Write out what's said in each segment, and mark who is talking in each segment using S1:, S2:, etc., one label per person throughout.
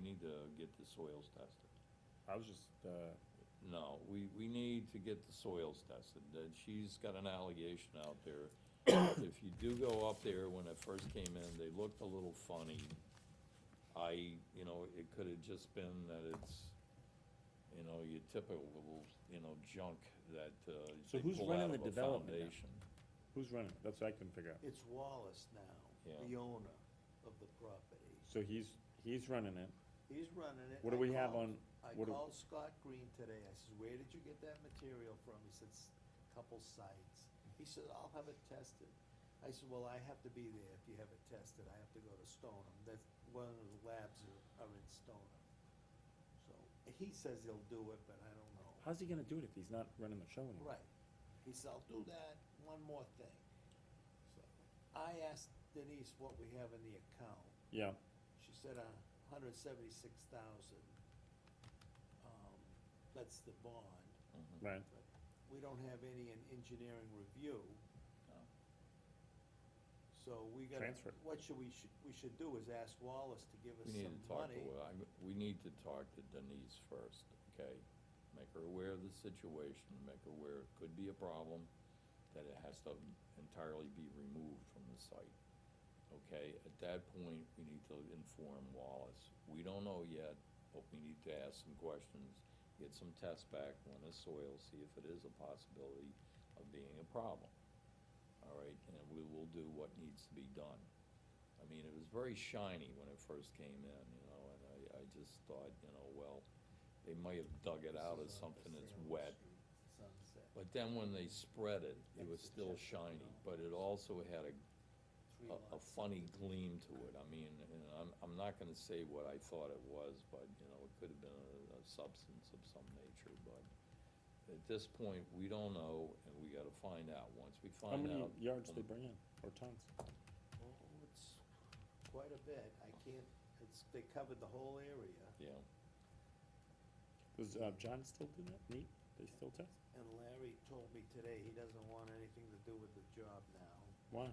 S1: to get the soils tested.
S2: I was just, uh,
S1: No, we, we need to get the soils tested, that she's got an allegation out there. If you do go up there, when it first came in, they looked a little funny. I, you know, it could have just been that it's, you know, your typical, you know, junk that, uh,
S2: So
S1: they
S2: who's
S1: pull out
S2: running
S1: of a
S2: the development now?
S1: foundation.
S2: who's running? That's what I can figure out.
S3: It's Wallace now,
S1: Yeah.
S3: the owner of the property.
S2: So he's, he's running it.
S3: He's running it.
S2: What do
S3: I
S2: we have
S3: called-
S2: on-
S3: I
S2: what do-
S3: called Scott Green today. I says, where did you get that material from? He said, "S- couple sites. He said, I'll have it tested. I said, well, I have to be there if you have it tested. I have to go to Stoneham. That's, one of the labs are, are in Stoneham. So, he says he'll do it, but I don't know.
S2: How's he gonna do it if he's not running the show anymore?
S3: Right. He said, I'll do that, one more thing. So, I asked Denise what we have in the account.
S2: Yeah,
S3: She said a hundred seventy-six thousand. Um, that's the bond,
S1: Mhm.
S2: right.
S3: but we don't have any in engineering review,
S1: No.
S3: so we gotta.
S2: Transfer it.
S3: What should we, should, we should do is ask Wallace to give us
S1: We need
S3: some
S1: to talk to,
S3: money.
S1: I- we need to talk to Denise first, okay? Make her aware of the situation, make her aware it could be a problem, that it has to entirely be removed from the site. Okay, at that point, we need to inform Wallace. We don't know yet, but we need to ask some questions, get some tests back, run the soil, see if it is a possibility of being a problem. All right, and we will do what needs to be done. I mean, it was very shiny when it first came in, you know, and I, I just thought, you know, well, they might have dug it out as something that's wet.
S3: Sunset,
S1: But then when they spread it, it was
S3: Exit
S1: still
S3: check.
S1: shiny, but it also had a
S3: three
S1: a, a
S3: lots.
S1: funny gleam to it. I mean, and I'm, I'm not gonna say what I thought it was, but, you know, it could have been a, a substance of some nature, but at this point, we don't know, and we gotta find out. Once we
S2: How
S1: find
S2: many
S1: out.
S2: yards they bring in, or tons?
S3: Oh, it's quite a bit, I can't, it's, they covered the whole area,
S1: Yeah,
S2: Does, uh, John still do that? Neat? They still test?
S3: and Larry told me today he doesn't want anything to do with the job now.
S2: Why?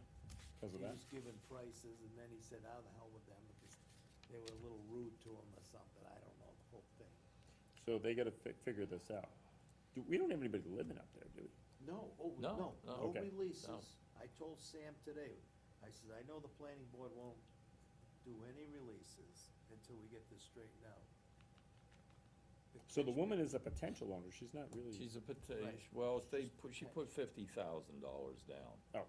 S2: Cause of
S3: He
S2: that?
S3: was given prices, and then he said, how the hell with them, because they were a little rude to him or something, I don't know, the whole thing.
S2: So they gotta fi- figure this out. Do, we don't have anybody living up there, do we?
S3: No, oh,
S1: No,
S3: no,
S1: no.
S3: no
S2: Okay.
S3: releases, I told Sam today, I said, I know the planning board won't do any releases until we get this straightened out.
S2: So the woman is a potential owner, she's not really,
S1: she's a potato,
S3: Right.
S1: well, they put, she put fifty thousand dollars down.
S2: oh,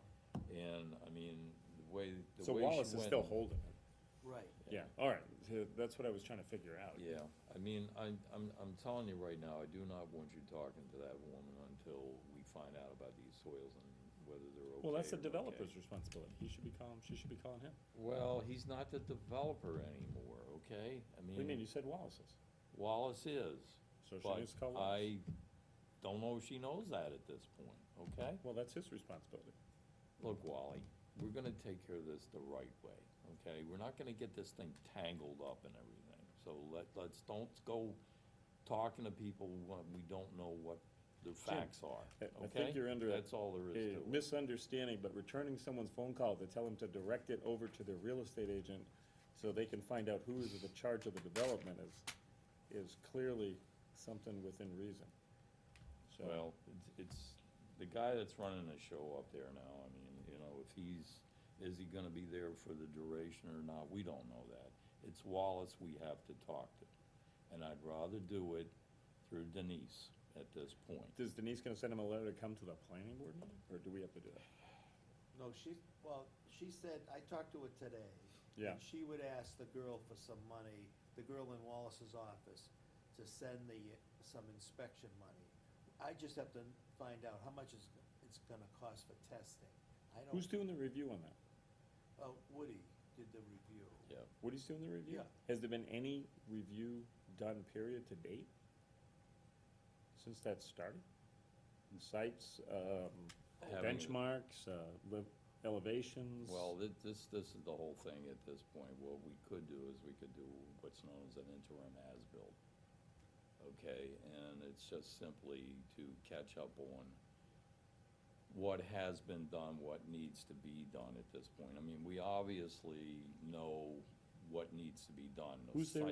S1: And, I mean, the way, the
S2: so
S1: way she went.
S2: Wallace is still holding it.
S3: Right,
S2: Yeah, alright, so that's what I was trying to figure out.
S1: Yeah, I mean, I, I'm, I'm telling you right now, I do not want you talking to that woman until we find out about these soils and whether they're okay.
S2: Well, that's the
S1: or okay.
S2: developer's responsibility. He should be calling, she should be calling him.
S1: Well, he's not the developer anymore, okay? I
S2: What do you mean?
S1: mean,
S2: You said Wallace's.
S1: Wallace is,
S2: So she
S1: but
S2: needs to call Wallace.
S1: I don't know if she knows that at this point, okay?
S2: Well, that's his responsibility.
S1: Look, Wally, we're gonna take care of this the right way, okay? We're not gonna get this thing tangled up and everything, so let, let's, don't go talking to people when we don't know what the facts
S2: I-
S1: are,
S2: I
S1: okay?
S2: think you're under a-
S1: That's all there is
S2: A
S1: to it.
S2: misunderstanding, but returning someone's phone call to tell him to direct it over to their real estate agent so they can find out who is in charge of the development is, is clearly something within reason. So-
S1: Well, it's, it's, the guy that's running the show up there now, I mean, you know, if he's, is he gonna be there for the duration or not, we don't know that. It's Wallace we have to talk to, and I'd rather do it through Denise at this point.
S2: Is Denise gonna send him a letter to come to the planning board meeting, or do we have to do that?
S3: no, she, well, she said, I talked to her today.
S2: Yeah.
S3: and She would ask the girl for some money, the girl in Wallace's office, to send the, some inspection money. I just have to find out how much it's, it's gonna cost for testing. I don't.
S2: Who's doing the review on that?
S3: Uh, Woody did the review.
S1: Yeah,
S2: Woody's doing the review?
S3: Yeah.
S2: Has there been any review done period to date? Since that started? Sites, um,
S1: Having-
S2: benchmarks, uh, le- elevations?
S1: well, thi- this, this is the whole thing at this point. What we could do is we could do what's known as an interim as-built. Okay, and it's just simply to catch up on what has been done, what needs to be done at this point. I mean, we obviously know what needs to be done. The
S2: Who's there
S1: site